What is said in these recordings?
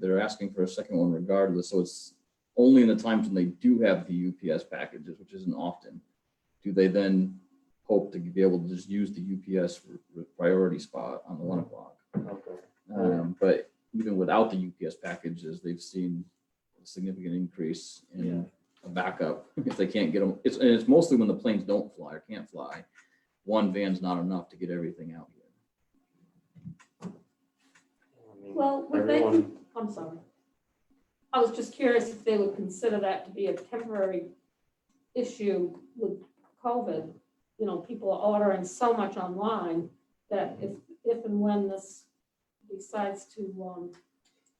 They're asking for a second one regardless, so it's only in the times when they do have the UPS packages, which isn't often. Do they then hope to be able to just use the UPS r- r- priority spot on the one o'clock? Okay. Um, but even without the UPS packages, they've seen a significant increase in a backup if they can't get them. It's, and it's mostly when the planes don't fly or can't fly. One van's not enough to get everything out here. I mean, Well, would they, Mm. Everyone, I'm sorry. I was just curious if they would consider that to be a temporary issue with COVID. You know, people are ordering so much online that if, if and when this decides to, um,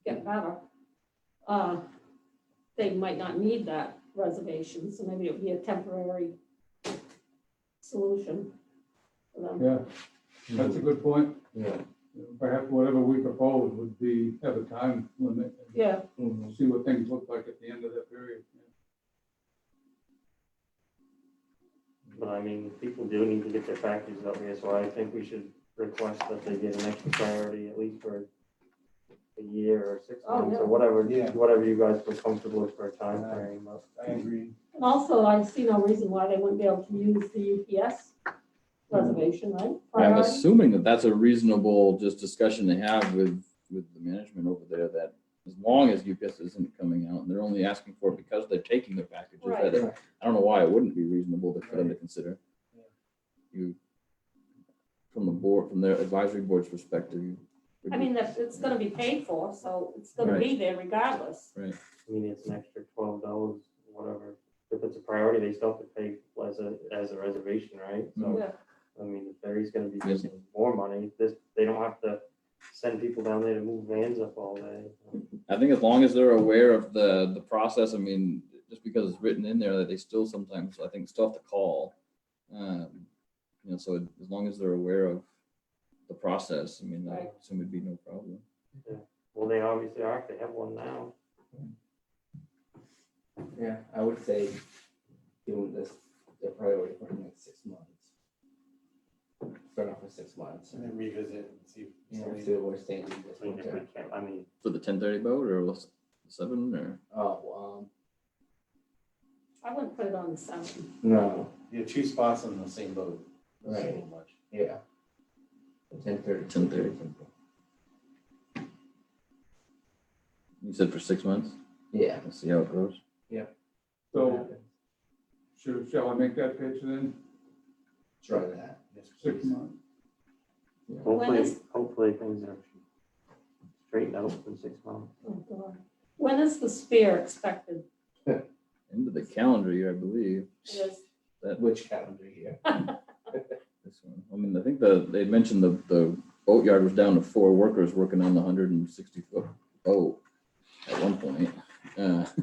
get better, uh, they might not need that reservation, so maybe it would be a temporary solution for them. Yeah, that's a good point. yeah. Perhaps whatever we propose would be, have a time limit. and Yeah, Mhm. See what things look like at the end of that period. But I mean, people do need to get their packages up here, so I think we should request that they get an extra priority at least for a year or six Oh, months yeah. or whatever, Yeah. whatever you guys feel comfortable with for a time frame. but- I agree. And also, I see no reason why they wouldn't be able to use the UPS reservation, right? I'm Priority? assuming that that's a reasonable just discussion to have with, with the management over there that as long as UPS isn't coming out and they're only asking for it because they're taking their packages, Right. that- I don't know why it wouldn't be reasonable to- for them to consider. Yeah. You, from the board, from their advisory board's perspective. you- I mean, that's, it's gonna be paid for, so it's gonna be there regardless. I mean, it's an extra twelve dollars, whatever. If it's a priority, they still have to pay as a, as a reservation, right? So, Yeah, I mean, the ferry's gonna be Yes. getting more money. This, they don't have to send people down there to move vans up all day. I think as long as they're aware of the, the process, I mean, just because it's written in there that they still sometimes, I think, still have to call. Um, You know, so as long as they're aware of the process, I mean, I Right. assume it'd be no problem. Well, they obviously are, if they have one now. Yeah, I would say doing this, the priority for the next six months. Start off with six months. And then revisit and see. You know, see where we're staying in this I mean, if we winter. can, I mean, For the ten thirty boat or was it seven or, Oh, I wouldn't put it on the seven. um, no, You have two spots on the same boat. That's a Right. little much. yeah. Ten thirty. 10:30. you said for six months? Yeah. Let's see how it goes. So should, shall I make that pitch then? Try that. Yes, Six please. months. hopefully, is- hopefully things are straightened out in six months. Oh, God. When is the spear expected? End of the calendar year, I believe. Yes. Which calendar year? This one. I mean, I think the, they mentioned the, the boatyard was down to four workers working on the hundred and sixty foot boat at one point. Uh,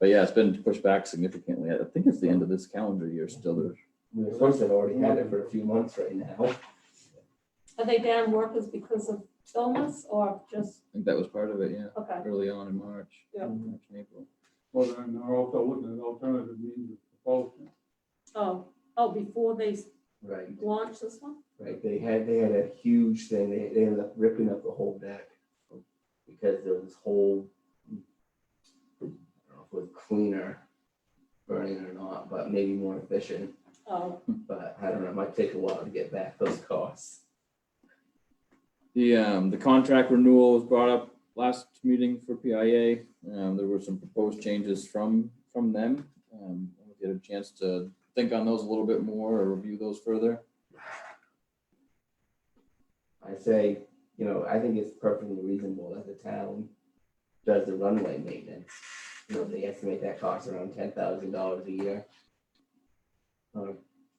But yeah, it's been pushed back significantly. I think it's the end of this calendar year still. There's- We're supposed to have already had it for a few months right now. Are they down workers because of illness or just, I think that was part of it, yeah, okay, early on in March. Yeah. March and April. Well, then they're also looking at alternative means of propulsion. oh, oh, before they Right, launch this one? right. They had, they had a huge thing. They, they ended up ripping up the whole deck. Because there was this whole, I don't know if it was cleaner burning or not, but maybe more efficient. Oh, But I don't know, it might take a while to get back those costs. The, um, the contract renewal was brought up last meeting for PIA. Um, there were some proposed changes from, from them. Um, I'll Get a chance to think on those a little bit more or review those further. I say, you know, I think it's perfectly reasonable that the town does the runway maintenance. You know, they estimate that costs around ten thousand dollars a year. Or,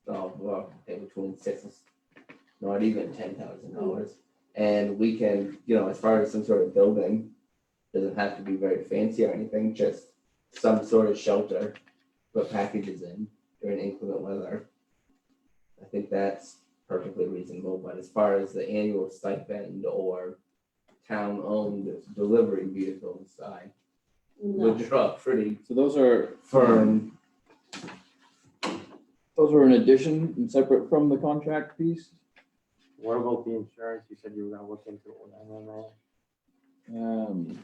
oh, well, I think between six, and s- not even ten thousand dollars. And we can, you know, as far as some sort of building, doesn't have to be very fancy or anything, just some sort of shelter, put packages in during inclement weather. I think that's perfectly reasonable, but as far as the annual stipend or town-owned delivery vehicles, I no. would draw a pretty So those are, firm. those are in addition and separate from the contract piece. What about the insurance? You said you were gonna look into it with MMA. Um,